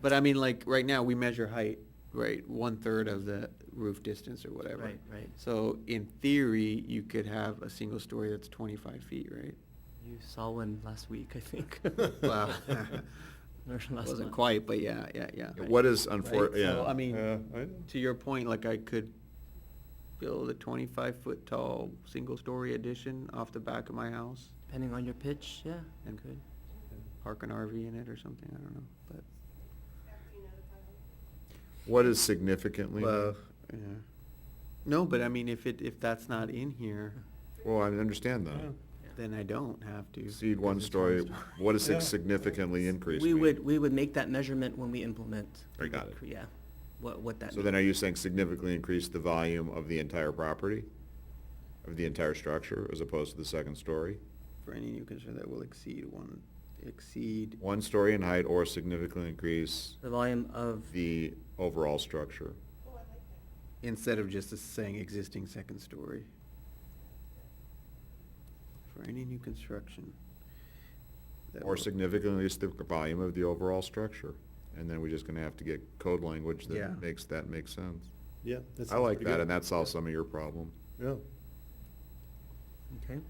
But I mean, like, right now, we measure height, right, one-third of the roof distance or whatever. Right, right. So in theory, you could have a single story that's twenty-five feet, right? You saw one last week, I think. Well, Or last wasn't month. quite, but yeah, yeah, yeah. What is Right, unfor, So, I yeah, mean, Yeah, I- to your point, like, I could build a twenty-five foot tall, single-story addition off the back of my house Depending on your pitch, yeah, And- good. park an RV in it or something, I don't know, but, what is significantly? Well, yeah. No, but I mean, if it, if that's not in here, Well, I understand that. then I don't have to. Exceed because one it's story, what does Yeah. significantly increase We mean? would, we would make that measurement when we implement. I got it. Yeah, what, what that. So then are you saying significantly increase the volume of the entire property? Of the entire structure as opposed to the second story? For any new construction that will exceed one, exceed, One story in height or significantly increase The volume of, the overall structure? instead of just saying existing second story. For any new construction. that Or will- significantly increase the volume of the overall structure? And then we're just gonna have to get code language Yeah. that makes that make sense. yeah. that I sounds like pretty that, good. and that solves some of your problem. Yeah. okay,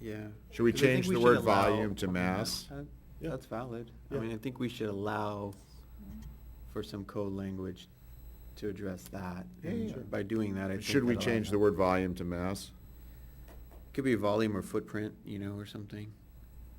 Yeah. Should we Because I think change the should word allow- volume to mass? That- Yeah. That's valid. I Yeah. mean, I think we should allow for some code language to address that. Yeah, and yeah. By doing that, I think. Should we that'll- change the word volume to mass? Could be volume or footprint, you know, or something.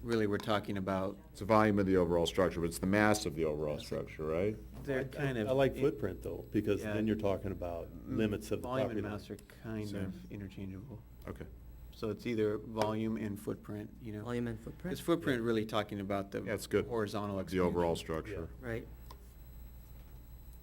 Really, we're talking about, It's the volume of the overall structure, but it's the mass of the overall structure, right? they're I- I- kind of. I like in- footprint though, because Yeah. Mm-hmm. then you're talking about limits of the Volume property and line. mass are kind Same. of interchangeable. Okay. So it's either volume and footprint, you know? volume and footprint. Is footprint really talking about the That's good. horizontal The expansion? overall structure. Right.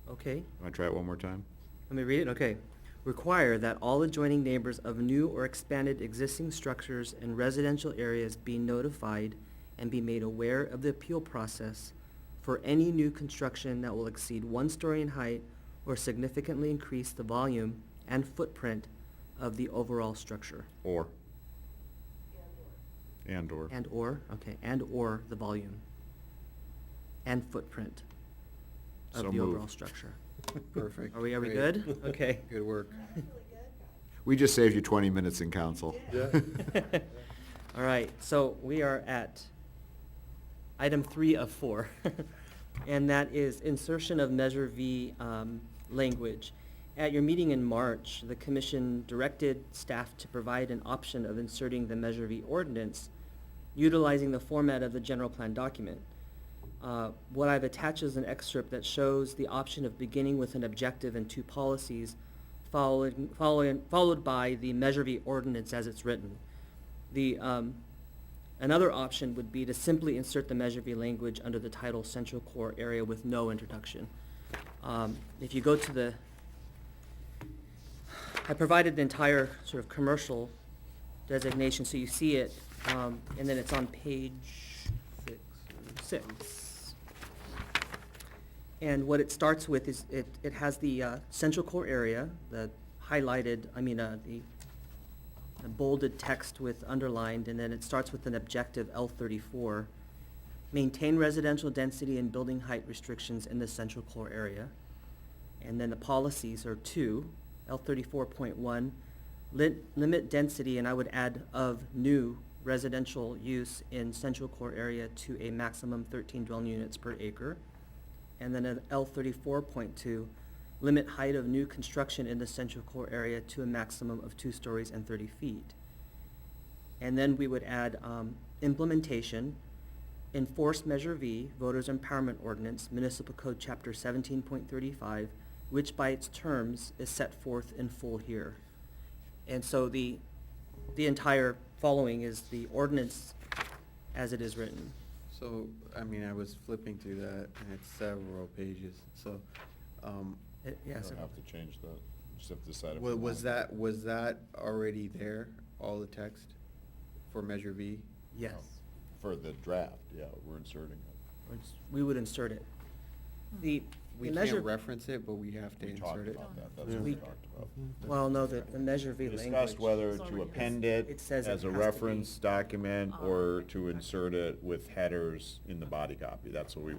Okay. Want to try it one more time? Let me read it, okay. Require that all adjoining neighbors of new or expanded existing structures and residential areas be notified and be made aware of the appeal process for any new construction that will exceed one story in height or significantly increase the volume and footprint of the overall structure. Or? And/or. And/or, okay, and/or the volume and footprint So of the moved. overall structure. Perfect. Are we, are we Great. good? Okay. Good work. We just saved you 20 minutes in council. Yeah. All right, so we are at item three of four, and that is insertion of Measure V um, language. At your meeting in March, the commission directed staff to provide an option of inserting the Measure V ordinance utilizing the format of the general plan document. Uh, What I've attached is an excerpt that shows the option of beginning with an objective and two policies, following, following, followed by the Measure V ordinance as it's written. The, um, another option would be to simply insert the Measure V language under the title Central Core Area with no introduction. Um, if you go to the, I provided the entire sort of commercial designation, so you see it, um, and then it's on page six. Six. And what it starts with is, it, it has the, uh, central core area, the highlighted, I mean, uh, the the bolded text with underlined, and then it starts with an objective L thirty-four. Maintain residential density and building height restrictions in the central core area. And then the policies are two, L thirty-four point one, lit, limit density, and I would add of new residential use in central core area to a maximum thirteen dwelling units per acre. And then an L thirty-four point two, limit height of new construction in the central core area to a maximum of two stories and thirty feet. And then we would add, um, implementation, enforce Measure V, Voters Empowerment Ordinance, Municipal Code Chapter seventeen point thirty-five, which by its terms is set forth in full here. And so the, the entire following is the ordinance as it is written. So, I mean, I was flipping through that, and it's several pages, so, um, It- Yes, to change that, just have to decide. wa- was that, was that already there, all the text for Measure V? yes. For the draft, yeah, we're inserting it. Or it's- We would insert it. The, We the measure. can't reference it, but we have to insert it. that, what Yeah. we talked about. Well, no, the, the Measure V We language. discussed whether It's to already- append it It says it as a has to be. reference document Oh, or okay. to insert it with headers in the body copy. That's what we